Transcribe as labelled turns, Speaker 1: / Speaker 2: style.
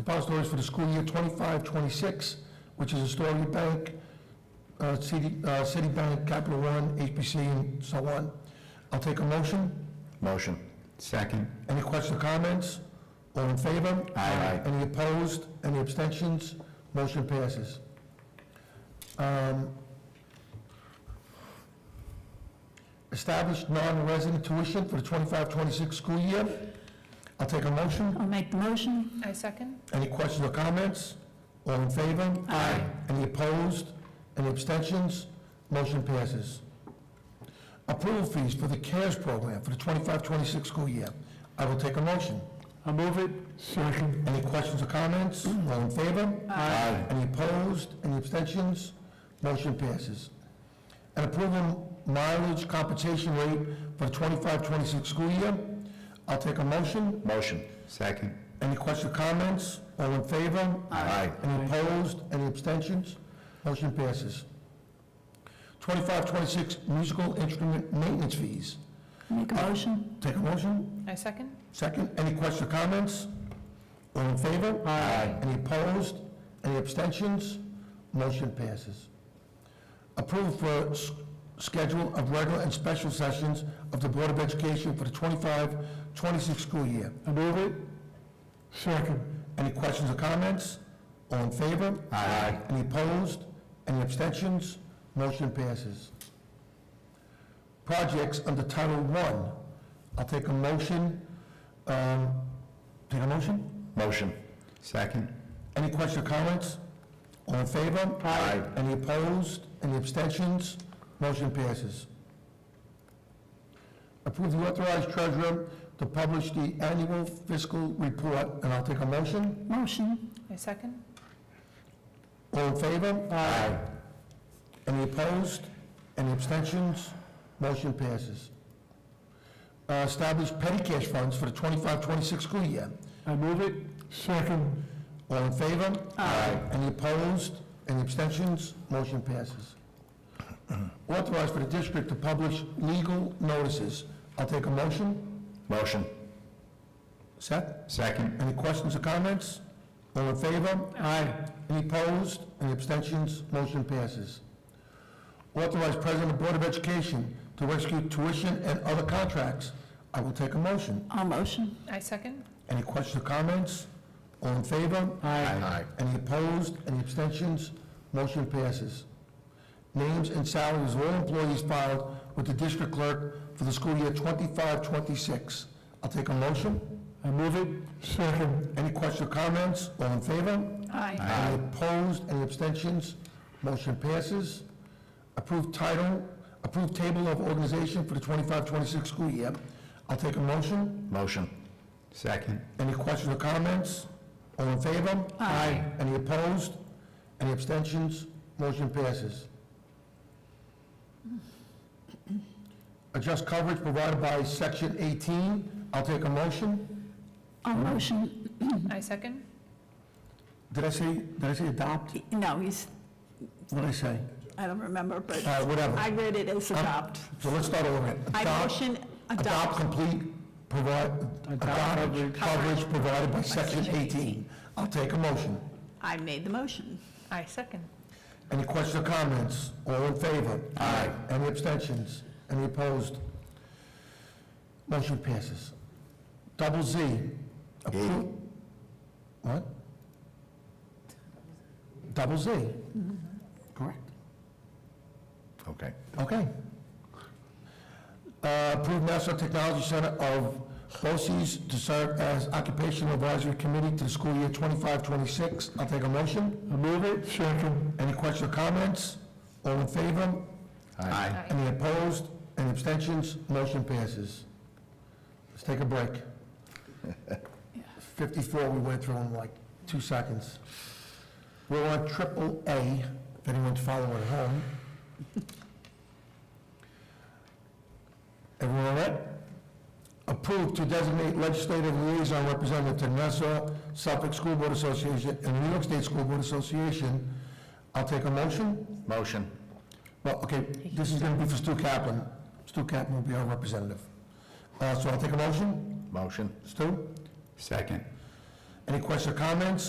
Speaker 1: depositories for the school year 25, 26, which is Astoria Bank, uh, CD uh, Citibank, Capital One, HBC, and so on. I'll take a motion.
Speaker 2: Motion. Second.
Speaker 1: Any questions or comments? All in favor?
Speaker 2: Aye.
Speaker 1: Any opposed? Any abstentions? Motion passes. Um, Establish non-resident tuition for the 25-26 school year. I'll take a motion.
Speaker 3: I'll make the motion.
Speaker 4: I second.
Speaker 1: Any questions or comments? All in favor?
Speaker 3: Aye.
Speaker 1: Any opposed? Any abstentions? Motion passes. Approval fees for the CARES program for the 25-26 school year. I will take a motion.
Speaker 2: I'll move it.
Speaker 1: Second. Any questions or comments? All in favor?
Speaker 2: Aye.
Speaker 1: Any opposed? Any abstentions? Motion passes. An approval mileage compensation rate for the 25-26 school year. I'll take a motion.
Speaker 2: Motion. Second.
Speaker 1: Any questions or comments? All in favor?
Speaker 2: Aye.
Speaker 1: Any opposed? Any abstentions? Motion passes. 25-26 musical instrument maintenance fees.
Speaker 3: Make a motion.
Speaker 1: Take a motion.
Speaker 4: I second.
Speaker 1: Second, any questions or comments? All in favor?
Speaker 2: Aye.
Speaker 1: Any opposed? Any abstentions? Motion passes. Approved for s- schedule of regular and special sessions of the Board of Education for the 25-26 school year. I move it. Second. Any questions or comments? All in favor?
Speaker 2: Aye.
Speaker 1: Any opposed? Any abstentions? Motion passes. Projects under Title One. I'll take a motion, um, take a motion?
Speaker 2: Motion. Second.
Speaker 1: Any questions or comments? All in favor?
Speaker 2: Aye.
Speaker 1: Any opposed? Any abstentions? Motion passes. Approve the authorized treasurer to publish the annual fiscal report, and I'll take a motion.
Speaker 3: Motion.
Speaker 4: I second.
Speaker 1: All in favor?
Speaker 2: Aye.
Speaker 1: Any opposed? Any abstentions? Motion passes. Uh, Establish petty cash funds for the 25-26 school year. I move it. Second. All in favor?
Speaker 2: Aye.
Speaker 1: Any opposed? Any abstentions? Motion passes. Authorize for the district to publish legal notices. I'll take a motion.
Speaker 2: Motion.
Speaker 1: Seth?
Speaker 2: Second.
Speaker 1: Any questions or comments? All in favor? Aye. Any opposed? Any abstentions? Motion passes. Authorize President of Board of Education to rescue tuition and other contracts. I will take a motion.
Speaker 3: I'll motion.
Speaker 4: I second.
Speaker 1: Any questions or comments? All in favor?
Speaker 2: Aye.
Speaker 1: Any opposed? Any abstentions? Motion passes. Names and salaries of all employees filed with the district clerk for the school year 25-26. I'll take a motion. I move it. Second. Any questions or comments? All in favor?
Speaker 3: Aye.
Speaker 1: Any opposed, any abstentions? Motion passes. Approved title, approved table of organization for the 25-26 school year. I'll take a motion.
Speaker 2: Motion. Second.
Speaker 1: Any questions or comments? All in favor?
Speaker 3: Aye.
Speaker 1: Any opposed? Any abstentions? Motion passes. Adjust coverage provided by Section 18. I'll take a motion.
Speaker 3: I'll motion.
Speaker 4: I second.
Speaker 1: Did I say, did I say adopt?
Speaker 3: No, he's,
Speaker 1: What did I say?
Speaker 3: I don't remember,
Speaker 1: All
Speaker 3: but
Speaker 1: right, Uh, whatever.
Speaker 3: I read it as adopt.
Speaker 1: So let's start over.
Speaker 3: I
Speaker 1: Adopt.
Speaker 3: motion
Speaker 1: Adopt
Speaker 3: adopt.
Speaker 1: complete, provide, adopt coverage provided by section 18. I'll take a motion.
Speaker 3: I made the motion.
Speaker 4: I second.
Speaker 1: Any questions or comments? All in favor?
Speaker 2: Aye.
Speaker 1: Any abstentions? Any opposed? Motion passes. Double Z. Approve. What? Double Z. Correct.
Speaker 2: Okay.
Speaker 1: Okay. Uh, Approve National Technology Center of BOCES to serve as Occupational Advisory Committee to the school year 25-26. I'll take a motion. I move it. Second. Any questions or comments? All in favor?
Speaker 2: Aye.
Speaker 4: Aye.
Speaker 1: Any opposed? Any abstentions? Motion passes. Let's take a break. 54 we went through in like two seconds. We're on triple A, if anyone's following at home. Everyone all right? Approved to designate legislative liaison representative to Nassau Suffolk School Board Association and New York State School Board Association. I'll take a motion.
Speaker 2: Motion.
Speaker 1: Well, okay, this is going to be for Stu Kaplan. Stu Kaplan will be our representative. Uh, So I'll take a motion.
Speaker 2: Motion.
Speaker 1: Stu,
Speaker 2: Second.
Speaker 1: any questions or comments?